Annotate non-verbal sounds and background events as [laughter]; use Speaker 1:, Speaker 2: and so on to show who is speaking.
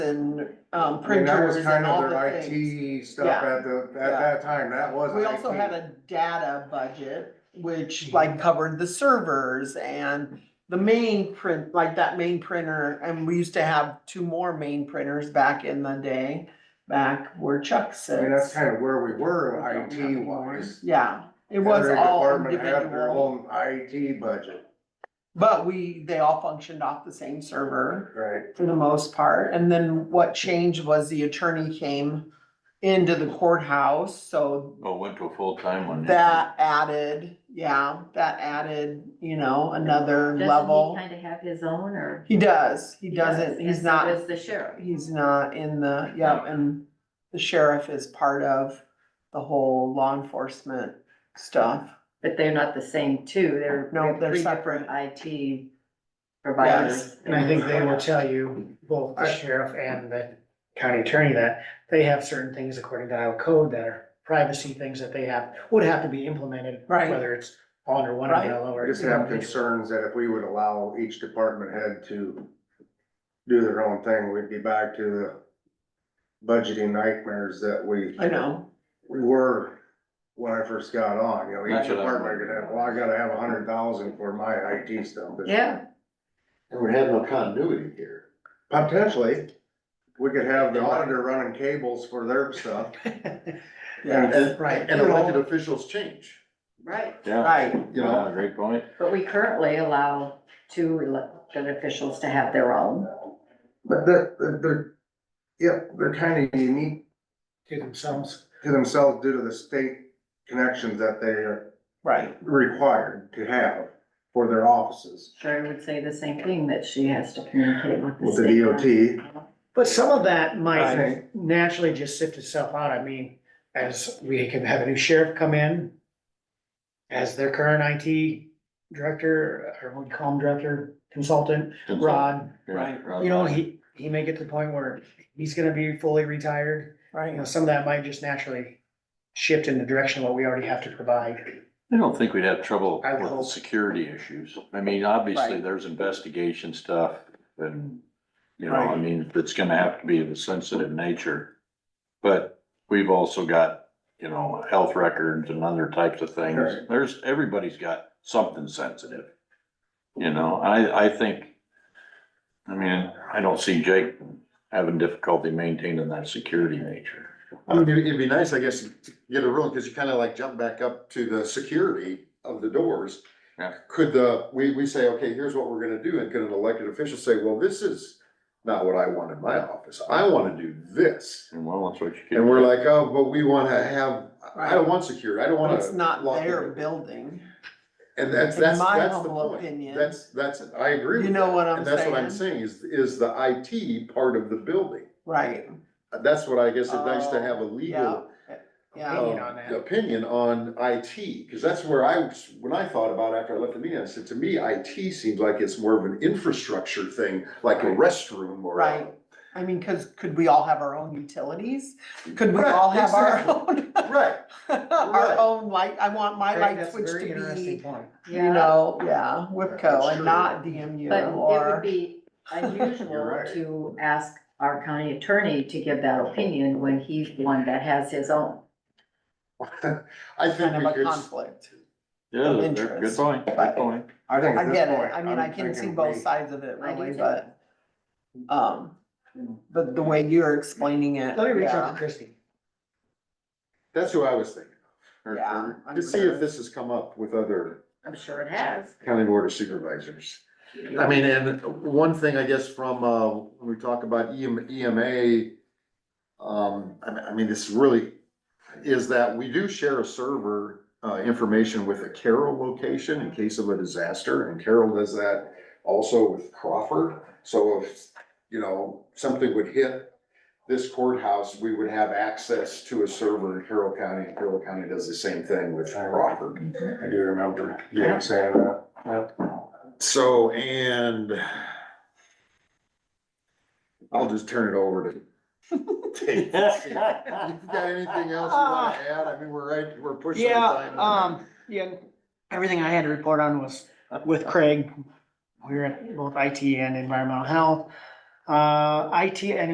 Speaker 1: and um,
Speaker 2: I mean, that was
Speaker 1: printers
Speaker 2: kind
Speaker 1: and all
Speaker 2: of
Speaker 1: the
Speaker 2: their
Speaker 1: things.
Speaker 2: IT stuff
Speaker 1: Yeah.
Speaker 2: at the,
Speaker 1: Yeah.
Speaker 2: at that time, that was IT.
Speaker 1: We also had a data budget,
Speaker 2: Hmm.
Speaker 1: which like covered the servers and the main print, like that main printer. And we used to have two more main printers back in the day, back where Chuck
Speaker 2: I mean, that's
Speaker 1: sits.
Speaker 2: kind of where we were
Speaker 3: We don't have
Speaker 2: IT wise.
Speaker 1: Yeah, it was all
Speaker 2: Every department had their
Speaker 1: individual,
Speaker 2: own IT budget,
Speaker 1: but we, they all functioned off the same server.
Speaker 2: right?
Speaker 1: for the most part, and then what changed was the attorney came into the courthouse, so
Speaker 3: Well, went to a full-time one.
Speaker 1: that added, yeah, that added, you know, another level.
Speaker 4: Doesn't he kind of have his own or?
Speaker 1: He does, he
Speaker 4: does,
Speaker 1: doesn't, he's
Speaker 4: and so
Speaker 1: not,
Speaker 4: Does the sheriff.
Speaker 1: he's not in the, yeah, and the sheriff is part of the whole law enforcement stuff.
Speaker 4: But they're not the same two. They're.
Speaker 1: No, they're
Speaker 4: three
Speaker 1: separate.
Speaker 4: different IT providers.
Speaker 5: And I think they will tell you, both the sheriff and the county attorney, that they have certain things according to Iowa code that are privacy things that they have, would have to be implemented.
Speaker 1: Right.
Speaker 5: Whether it's all under one
Speaker 1: Right.
Speaker 5: umbrella
Speaker 2: I
Speaker 5: or.
Speaker 2: just have concerns that if we would allow each department head to do their own thing, we'd be back to the budgeting nightmares that we,
Speaker 1: I know,
Speaker 2: we were when I first got on, you know, each
Speaker 3: That's what I'm
Speaker 2: department could have, well, I gotta have a hundred thousand for my IT stuff. but
Speaker 4: Yeah,
Speaker 6: And we have no continuity here.
Speaker 2: Potentially, we could have the auditor running cables for their stuff.
Speaker 1: yeah,
Speaker 6: And-
Speaker 5: Right.
Speaker 6: And elected officials change,
Speaker 4: right.
Speaker 3: Yeah,
Speaker 1: right,
Speaker 6: you know?
Speaker 3: yeah, great point.
Speaker 4: But we currently allow two elected officials to have their own.
Speaker 2: But they're, they're- they're, yep, they're kinda unique
Speaker 5: To themselves.
Speaker 2: to themselves due to the state connections that they are
Speaker 1: right,
Speaker 2: required to have for their offices.
Speaker 4: Sherry would say the same thing, that she has to communicate with the
Speaker 2: With the
Speaker 4: state.
Speaker 2: DOT.
Speaker 5: But some of that
Speaker 2: I
Speaker 5: might
Speaker 2: think,
Speaker 5: naturally just sift itself out. I mean, as we can have a new sheriff come in. As their current IT director, or what do you call him, director, consultant, Rod.
Speaker 3: Right,
Speaker 5: You know, he, he may get to the point where he's gonna be fully retired, you know,
Speaker 1: right.
Speaker 5: some of that might just naturally shift in the direction of what we already have to provide.
Speaker 3: I don't think we'd have trouble
Speaker 5: I
Speaker 3: with the
Speaker 5: hope.
Speaker 3: security issues. I mean, obviously,
Speaker 1: Right.
Speaker 3: there's investigation stuff and, you know, I
Speaker 1: Right.
Speaker 3: mean, it's gonna have to be of a sensitive nature. But we've also got, you know, health records and other types of things.
Speaker 2: Right.
Speaker 3: There's, everybody's got something sensitive. You know, I, I think, I mean, I don't see Jake having difficulty maintaining that security nature.
Speaker 6: I mean, it'd it'd be nice, I guess, to get a rule, because you kind of like jump back up to the security of the doors.
Speaker 3: Yeah.
Speaker 6: Could the, we, we say, okay, here's what we're gonna do, and could an elected official say, well, this is not what I want in my office, I want to do this.
Speaker 3: And well, that's what you.
Speaker 6: And we're like, oh, but we want to have, I don't want security, I don't
Speaker 1: But
Speaker 6: want to.
Speaker 1: it's not their building.
Speaker 6: And that's,
Speaker 1: In
Speaker 6: that's,
Speaker 1: my
Speaker 6: that's the
Speaker 1: humble
Speaker 6: point,
Speaker 1: opinion.
Speaker 6: that's, that's, I agree
Speaker 1: You
Speaker 6: with
Speaker 1: know
Speaker 6: that.
Speaker 1: what I'm
Speaker 6: And That's what I'm saying, is, is the IT part of the building,
Speaker 1: Right,
Speaker 6: that's what I guess it's nice to
Speaker 1: Oh,
Speaker 6: have a
Speaker 1: yeah,
Speaker 6: legal
Speaker 1: yeah,
Speaker 5: Opinion
Speaker 6: um,
Speaker 5: on that.
Speaker 6: Opinion on IT, because that's where I, was- when I thought about it after I left the meeting, I said, to me, IT seems like it's more of an infrastructure thing, like a restroom or. a-
Speaker 1: Right. I mean, cause could we all have our own utilities? Could we all
Speaker 6: Right,
Speaker 1: have our
Speaker 6: exactly.
Speaker 1: own, [laughs]
Speaker 6: Right,
Speaker 1: our
Speaker 6: Right.
Speaker 1: own light, I want my
Speaker 5: Craig,
Speaker 1: light
Speaker 5: that's a
Speaker 1: switch
Speaker 5: very
Speaker 1: to
Speaker 5: interesting
Speaker 1: be,
Speaker 5: point.
Speaker 1: you know, yeah,
Speaker 6: That's
Speaker 1: WIPCO and
Speaker 6: true.
Speaker 1: not DMU
Speaker 4: But it would
Speaker 1: or,
Speaker 4: be
Speaker 2: You're
Speaker 4: unusual
Speaker 2: right.
Speaker 4: to ask our county attorney to give that opinion when he's the one that has his own.
Speaker 6: I think
Speaker 1: kind
Speaker 6: we
Speaker 1: of a
Speaker 6: could,
Speaker 1: conflict.
Speaker 3: Yeah,
Speaker 1: of
Speaker 3: they're- good
Speaker 1: interest,
Speaker 3: point, good
Speaker 1: but-
Speaker 3: point.
Speaker 6: [laughs]
Speaker 3: [laughs]
Speaker 2: I think
Speaker 1: I
Speaker 2: at
Speaker 1: get
Speaker 2: this
Speaker 1: it,
Speaker 2: point.
Speaker 1: I mean, I
Speaker 2: I'm
Speaker 1: can see
Speaker 2: thinking
Speaker 1: both
Speaker 2: we-
Speaker 1: sides of it
Speaker 4: I do
Speaker 1: really,
Speaker 4: too.
Speaker 1: but, um, but the way you're explaining it,
Speaker 5: Let me reach out to
Speaker 1: yeah,
Speaker 5: Christie.
Speaker 6: that's who I was thinking,
Speaker 3: Or-
Speaker 1: yeah. I'm
Speaker 6: to see if
Speaker 1: sure.
Speaker 6: this has come up with other
Speaker 4: I'm sure it has.
Speaker 6: county board of supervisors. I mean, and one thing, I guess, from, uh, when we talk about E EM, EMA, um, I mean, I mean, this really is that we do share a server, uh, information with a Carroll location in case of a disaster, and Carroll does that also with Crawford. So if, you know, something would hit this courthouse, we would have access to a server in Carroll County, and Carroll County does the same thing with Crawford.
Speaker 2: I do remember, yeah, saying that.
Speaker 6: So, and I'll just turn it over to Dave. You got anything else you wanna add? I mean, we're right, we're pushing. the time.
Speaker 5: um, yeah, everything I had to report on was with Craig. We were at both IT and environmental health. Uh, IT and